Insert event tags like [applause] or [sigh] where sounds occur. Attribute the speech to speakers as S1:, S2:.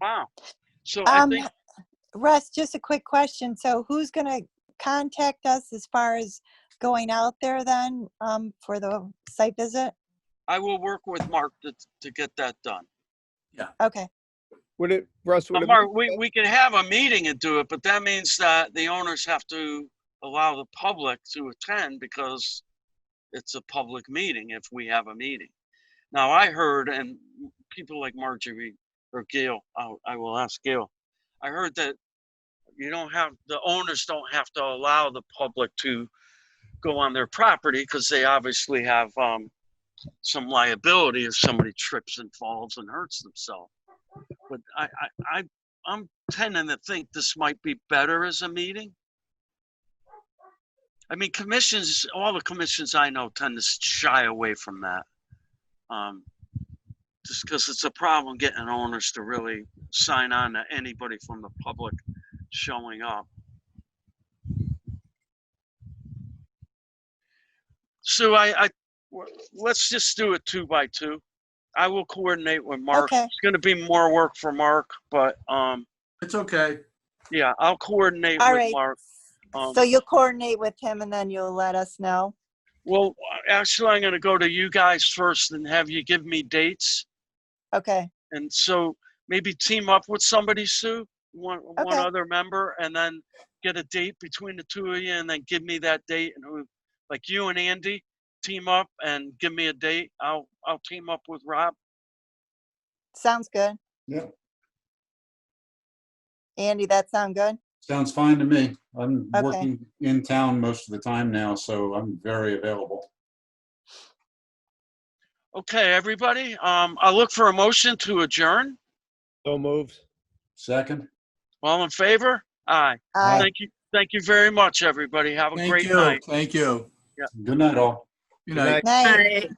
S1: Wow. So [laughs] I
S2: Um,
S1: think,
S2: Russ, just a quick question. So who's going to contact us as far as going out there then um, for the site visit?
S1: I will work with Mark to, to get that done.
S2: Okay,
S3: Would it, Russ, would
S1: But
S3: it,
S1: Mark, we, we can have a meeting and do it, but that means that the owners have to allow the public to attend because it's a public meeting if we have a meeting. Now, I heard, and people like Marjorie or Gail, I'll- I will ask Gail, I heard that you don't have, the owners don't have to allow the public to go on their property because they obviously have, um, some liability if somebody trips and falls and hurts themselves. But I, I, I, I'm tending to think this might be better as a meeting. I mean, commissions, all the commissions I know tend to shy away from that. Um, just because it's a problem getting owners to really sign on to anybody from the public showing up. Sue, I, I, w- let's just do it two by two. I will coordinate with Mark
S2: okay,
S1: it's going to be more work for Mark, but um,
S4: It's okay.
S1: yeah, I'll coordinate
S2: all
S1: with
S2: right.
S1: Mark. Um,
S2: So you'll coordinate with him and then you'll let us know?
S1: well, actually, I'm going to go to you guys first and have you give me dates,
S2: Okay,
S1: and so maybe team up with somebody, Sue, one one
S2: Okay.
S1: other member, and then get a date between the two of you, and then give me that date, and who, like you and Andy, team up and give me a date. I'll I'll team up with Rob.
S2: sounds good.
S4: Yeah,
S2: Andy, that sound good?
S4: sounds fine to me. I'm
S2: Okay.
S4: working in town most of the time now, so I'm very available.
S1: Okay, everybody. Um, I'll look for a motion to adjourn.
S3: so moved.
S4: Second?
S1: All in favor? Aye.
S2: Uh,
S1: Thank you, thank you very much, everybody. Have a
S5: Thank
S1: great
S5: you.
S1: night.
S5: Thank you.
S4: Good night, all.
S5: Good night.
S2: night.
S6: Bye.